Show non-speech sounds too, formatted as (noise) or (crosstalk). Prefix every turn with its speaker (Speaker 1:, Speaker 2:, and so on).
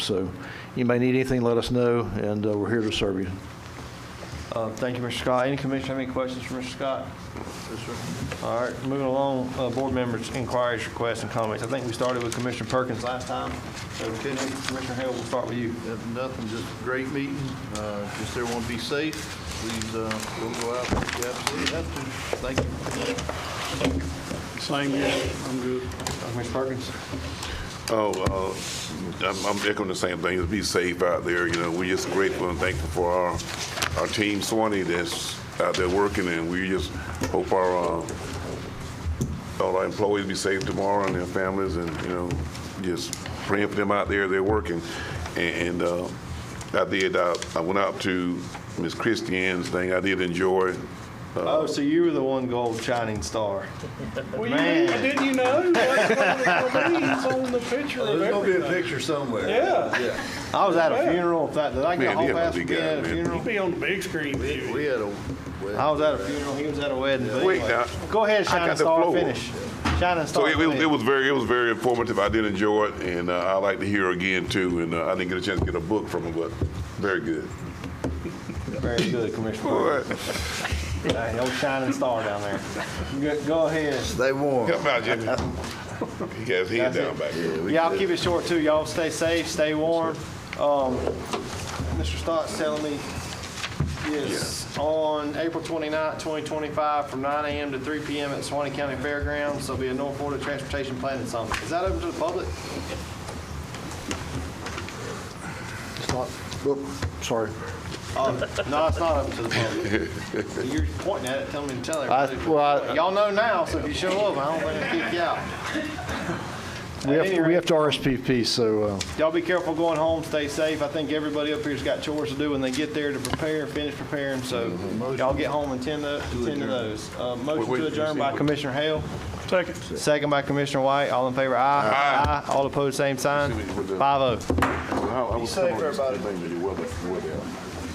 Speaker 1: So you may need anything, let us know, and uh, we're here to serve you.
Speaker 2: Uh, Thank you, Mr. Scott. Any commissioner have any questions for Mr. Scott? All right, moving along, uh, board members' inquiries, requests, and comments. I think we started with Commissioner Perkins last time, so Commissioner Hale, we'll start with you.
Speaker 3: If nothing, just a great meeting. Uh, Just everyone be safe. Please, uh, don't go out if you absolutely have to. Thank you.
Speaker 4: Same here, I'm good.
Speaker 2: Commissioner Uh, Perkins?
Speaker 5: Oh, uh, I'm I'm echoing the same thing. Be safe out there, you know. We're just grateful and thankful for our, our team Swanee that's out there working, and we just hope our, uh, all our employees be safe tomorrow and their families, and, you know, just praying for them out there, they're working. And uh, I did, uh, I went out to Miss Christian's thing. I did enjoy, Uh,
Speaker 2: Oh, so you were the one gold shining star.
Speaker 4: Well, you
Speaker 2: Man.
Speaker 4: knew- didn't you know? Like, one of the names on the picture of
Speaker 3: Oh, There's gonna be a
Speaker 4: everything.
Speaker 3: picture somewhere.
Speaker 4: Yeah.
Speaker 3: Yeah.
Speaker 2: I was at a funeral. In fact, did I get
Speaker 5: Man,
Speaker 2: a whole
Speaker 5: yeah,
Speaker 2: pass
Speaker 5: we
Speaker 2: to be
Speaker 5: got
Speaker 2: at a
Speaker 5: it, man.
Speaker 2: funeral?
Speaker 4: Be on the big screen with
Speaker 3: We
Speaker 4: you.
Speaker 3: we had a. we-
Speaker 2: I was at a funeral, he was at a wedding. but
Speaker 5: Wait,
Speaker 2: anyway.
Speaker 5: now.
Speaker 2: Go ahead,
Speaker 5: I
Speaker 2: shining
Speaker 5: got the
Speaker 2: star,
Speaker 5: floor.
Speaker 2: finish. Shining
Speaker 5: So
Speaker 2: star.
Speaker 5: it, it,
Speaker 2: finish.
Speaker 5: it was very it was very informative. I did enjoy it, and uh, I like to hear again too. And uh, I didn't get a chance to get a book from him, but very good.
Speaker 2: Very good, Commissioner
Speaker 5: All
Speaker 2: Perkins.
Speaker 5: right.
Speaker 1: (laughs)
Speaker 2: Hey, Old shining star down there. Go- Go ahead.
Speaker 3: Stay warm.
Speaker 5: Help
Speaker 2: (laughs)
Speaker 5: out, Jimmy. He has his head
Speaker 2: That's
Speaker 5: down
Speaker 2: it.
Speaker 5: back there.
Speaker 2: Yeah, I'll keep it short too. Y'all stay safe, stay warm. Um, Mr. Stott's telling me, yes, on April 29th, 2025, from 9 a.m. to 3 p.m. at Swanee County Fairgrounds, there'll be a North Florida Transportation Planning Summit. Is that open to the public?
Speaker 1: It's not, oop, sorry.
Speaker 2: Um, No, it's not open to the
Speaker 1: (laughs)
Speaker 2: public. You're pointing at it, telling me to tell everybody.
Speaker 1: well, I-
Speaker 2: Y'all know now, so if you show up, I don't think I'll kick you out.
Speaker 1: We
Speaker 2: At any
Speaker 1: have, we
Speaker 2: rate-
Speaker 1: have to RSVP, so uh,
Speaker 2: Y'all be careful going home, stay safe. I think everybody up here's got chores to do when they get there to prepare, finish preparing, so
Speaker 5: Mm-hmm.
Speaker 2: y'all get home and tend to, tend to those. Uh, Motion
Speaker 5: Wait,
Speaker 2: to
Speaker 5: wait,
Speaker 2: adjourn by
Speaker 5: see-
Speaker 2: Commissioner Hale,
Speaker 4: Second.
Speaker 2: second by Commissioner White, all in favor, aye.
Speaker 5: Aye.
Speaker 2: Aye, all opposed, same sign,
Speaker 5: See what you put there.
Speaker 2: five oh.
Speaker 5: Well, I- I was
Speaker 3: safe,
Speaker 5: telling him
Speaker 3: everybody.
Speaker 5: the thing that he wasn't- wasn't.